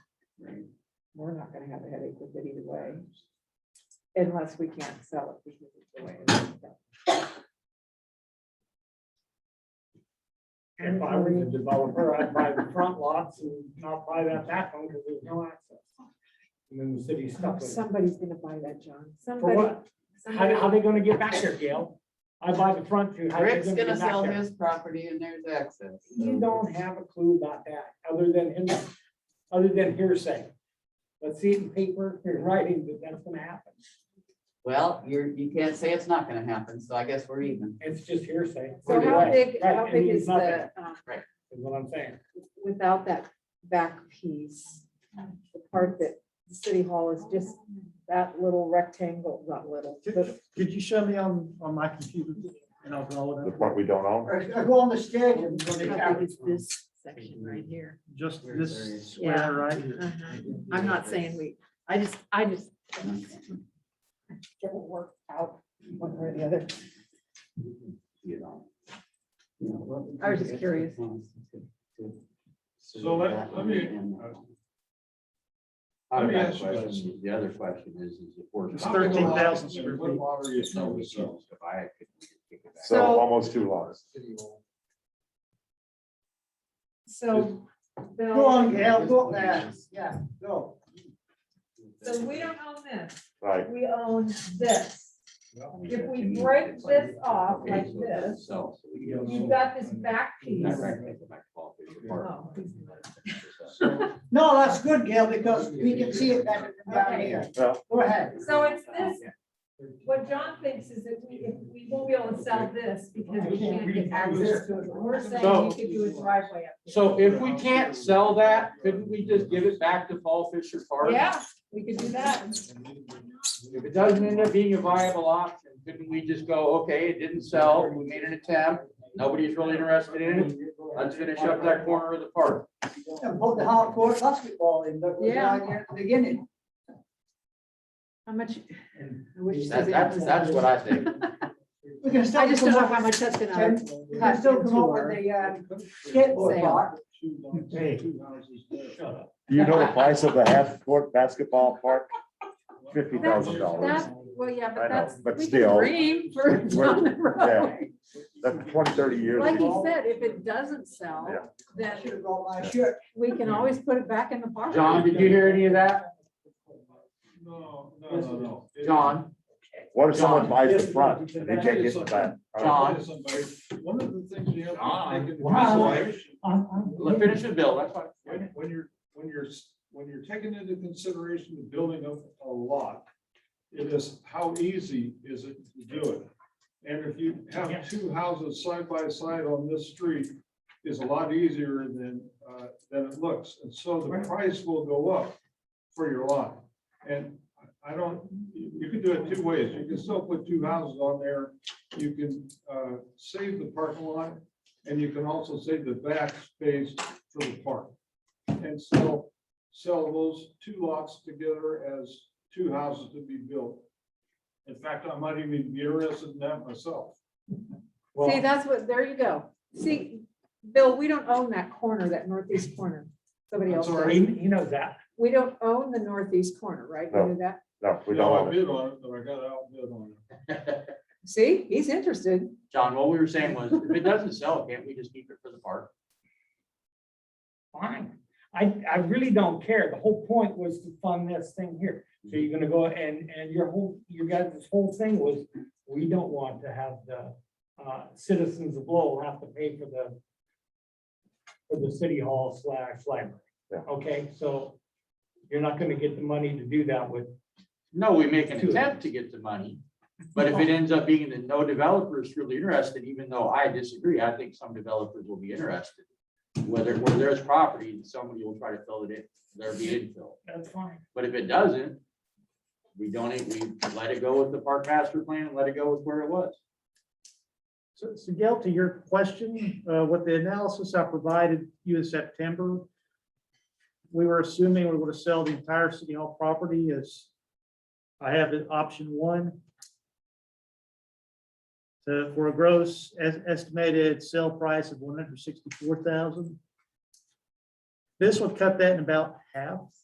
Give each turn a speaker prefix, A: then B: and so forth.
A: we're not gonna have a headache with it either way. Unless we can't sell it because it's the way. it's built.
B: If I were the developer, I'd buy the front lots and not buy that back one because there's no access. And then the city's stuck with it.
A: Somebody's gonna buy that, John.
B: For
A: Somebody.
B: what? How, how
A: somebody-
B: they gonna get back there, Gail? I buy the front two. how they
C: Rick's
B: get
C: gonna
B: back
C: sell
B: there?
C: his property and there's access.
B: You don't have a clue about that, other than him, other than hearsay. Let's see it in paper, in writing, that that's gonna happen.
C: Well, you're, you can't say it's not gonna happen, so I guess we're even.
B: It's just hearsay.
A: So
B: Either
A: how
B: way,
A: big,
B: right,
A: how
B: it
A: big
B: means
A: is
B: nothing,
A: the, um,
B: Is what I'm saying.
A: without that back piece, the part that the city hall is just that little rectangle, not little, but
D: Could you show me on, on my computer and I'll draw it
E: The
D: up?
E: part we don't own,
B: I go on the stadium.
F: How big is this section right here?
D: Just
C: Where there
D: this
C: is-
F: Yeah.
D: square right here.
F: Uh-huh. I'm not saying we, I just, I just,
A: it will work out one way or the other.
C: You know. You know, what-
F: I was just curious.
G: So let- let me-
C: I
G: let me
C: have a
G: ask you this.
C: question. The other question is, is if we're.
D: It's 13,000 square
G: What
D: feet.
G: lot are you
C: No,
G: trying
C: we
G: to
C: can't.
G: sell?
C: If I could kick it back.
E: so
A: So-
E: almost two lots.
A: So,
B: Go
A: Bill,
B: on, Gail, go there.
G: uh,
B: Yeah, go.
A: so we don't own this,
E: Right,
A: we own this. If we
C: It's
A: break
C: like-
A: this off
C: okay,
A: like
C: so it doesn't
A: this,
C: sell, so we
B: you've
A: You've
C: don't-
A: got this back piece. Oh.
C: Not right, I go back to Paul Fisher Park.
A: Uh-huh.
B: No, that's good, Gail, because we can see it better from down here.
E: well,
B: Go ahead.
A: So it's this, what John thinks is that we, if we won't be able to sell this because we can't get access to it. We're saying you could do a driveway up. here.
H: So if we can't sell that, couldn't we just give it back to Paul Fisher Park?
A: Yeah, we could do that.
H: If it doesn't end up being a viable option, couldn't we just go, okay, it didn't sell, we made an attempt, nobody's really interested in it, let's finish up that corner of the park.
B: And put the hardcore basketball in, that was
F: Yeah.
B: down here at the beginning.
F: how much? I wish
C: That's, that's, that's what I think.
B: We can still.
F: I just don't know
B: come up-
F: how much that's gonna.
B: Ken, We can still come up with a uh, skateboard
F: Sale.
B: park.
E: do you know the price of the half court basketball park? Fifty thousand dollars.
F: That- Well, yeah,
E: I know,
F: but that's.
E: but
F: we can
E: still,
F: Dream for down the road.
E: That's 20, 30 years
F: Like
E: ago.
F: you said, if it doesn't sell,
E: Yeah.
F: then
B: Should have brought my shirt.
F: we can always put it back in the park.
H: John, did you hear any of that?
G: No, no, no, no.
H: John,
E: What if someone
H: John,
E: buys the front and they can't get the back?
H: John.
G: One of the things you have.
H: John.
G: to take into
B: Wow.
G: consideration
H: let finish the bill, that's fine.
G: When, when you're, when you're, s- when you're taking into consideration the building of a lot, it is, how easy is it to do it? And if you have two houses side by side on this street, is a lot easier than, uh, than it looks. And so the price will go up for your lot. And I don't, you you can do it two ways. You can still put two houses on there. You can, uh, save the parking lot and you can also save the back space for the park. And so sell those two lots together as two houses to be built. In fact, I might even be interested in that myself.
F: See, that's what, there you go. See, Bill, we don't own that corner, that northeast corner. Somebody
G: I'm
F: else
G: sorry.
F: does.
B: He, he knows that.
F: We don't own the northeast corner, right? You
E: No.
F: knew that?
E: No, we
G: You know,
E: don't
G: I
E: own it.
G: bid on it, but I got outbid on it.
F: See, he's interested.
H: John, what we were saying was, if it doesn't sell, can't we just keep it for the park?
B: Fine. I, I really don't care. The whole point was to fund this thing here. So you're gonna go and, and your whole, you guys, this whole thing was, we don't want to have the, uh, citizens of Lowell have to pay for the, for the city hall slash library.
E: Yeah.
B: Okay, so you're not gonna get the money to do that with
H: No, we make an
B: Two.
H: attempt to get the money, but if it ends up being that no developer is really interested, even though I disagree, I think some developers will be interested. Whether, where there's property, somebody will try to fill it in, there'll be infill,
B: That's fine.
H: but if it doesn't, we don't, we let it go with the park master plan, and let it go with where it was.
D: So, so Gail, to your question, uh, with the analysis I provided you in September, we were assuming we were to sell the entire city hall property as, I have it option one. So for a gross es- estimated sale price of one hundred sixty-four thousand. This would cut that in about half.